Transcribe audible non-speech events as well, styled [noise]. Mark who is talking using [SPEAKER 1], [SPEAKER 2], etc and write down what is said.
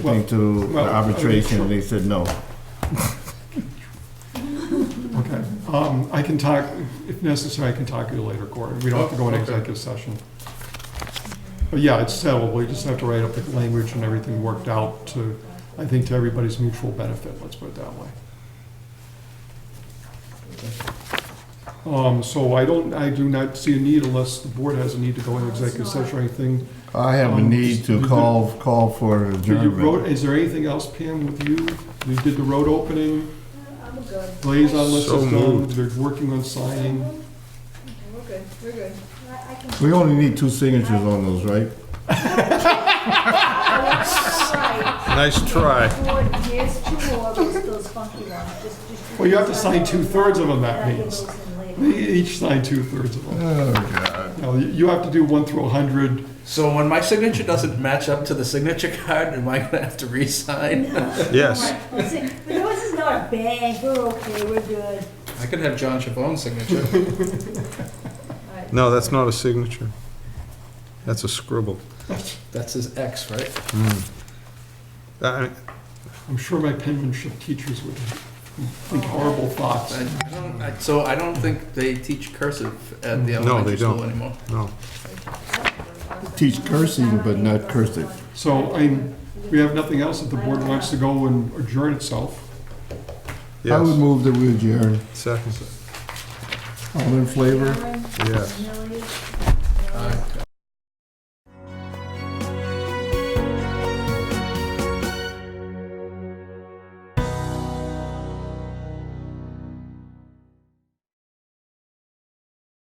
[SPEAKER 1] thing to
[SPEAKER 2] Well, well,
[SPEAKER 1] arbitration, they said no.
[SPEAKER 2] Okay, um, I can talk, if necessary, I can talk to you later, Corey. We don't have to go in
[SPEAKER 3] Oh, okay.
[SPEAKER 2] executive session. But yeah, it's settled, we just have to write up the language and everything worked out to, I think, to everybody's mutual benefit, let's put it that way. Um, so I don't, I do not see a need unless the board has a need to go in executive session or anything.
[SPEAKER 1] I have a
[SPEAKER 2] Um,
[SPEAKER 1] need
[SPEAKER 2] you
[SPEAKER 1] to
[SPEAKER 2] did-
[SPEAKER 1] call, call for
[SPEAKER 2] Do you road,
[SPEAKER 1] adjournment.
[SPEAKER 2] is there anything else, Pam, with you? You did the road opening,
[SPEAKER 4] I'm good.
[SPEAKER 2] liaison list
[SPEAKER 3] So
[SPEAKER 2] is done,
[SPEAKER 3] moved.
[SPEAKER 2] they're working on signing.
[SPEAKER 4] We're good, we're good. I I can.
[SPEAKER 1] We only need two signatures on those, right?
[SPEAKER 4] Alright.
[SPEAKER 3] Nice try.
[SPEAKER 4] Four, Here's two more, just those funky ones, just, just.
[SPEAKER 2] Well, you have to sign two-thirds of them, that
[SPEAKER 4] And I can
[SPEAKER 2] means.
[SPEAKER 4] those in
[SPEAKER 2] They
[SPEAKER 4] later.
[SPEAKER 2] Each sign two-thirds of them.
[SPEAKER 1] Oh, God.
[SPEAKER 2] Now, you- you have to do one through a hundred.
[SPEAKER 5] So when my signature doesn't match up to the signature [laughs] card, am I gonna have to re-sign?
[SPEAKER 3] Yes.
[SPEAKER 4] Listen, But yours is not a bang, we're okay, we're good.
[SPEAKER 5] I could have John Chabon's signature.
[SPEAKER 4] Alright.
[SPEAKER 3] No, that's not a signature. That's a scribble.
[SPEAKER 5] That's his ex, right?
[SPEAKER 3] Uh, I-
[SPEAKER 2] I'm sure my penmanship teachers would think horrible thoughts.
[SPEAKER 5] I I don't, I, so I don't think they teach cursive at the
[SPEAKER 3] Mm, No,
[SPEAKER 5] elementary
[SPEAKER 3] they don't.
[SPEAKER 5] school anymore.
[SPEAKER 3] No.
[SPEAKER 1] Teach cursing, but not cursive.
[SPEAKER 2] So, I mean, we have nothing else if the board wants to go and adjourn itself.
[SPEAKER 1] I would
[SPEAKER 3] Yes.
[SPEAKER 1] move that we adjourn.
[SPEAKER 3] Second.
[SPEAKER 1] All in favor?
[SPEAKER 4] Cameron,
[SPEAKER 3] Yes.
[SPEAKER 4] Millie, Millie,
[SPEAKER 5] Aye.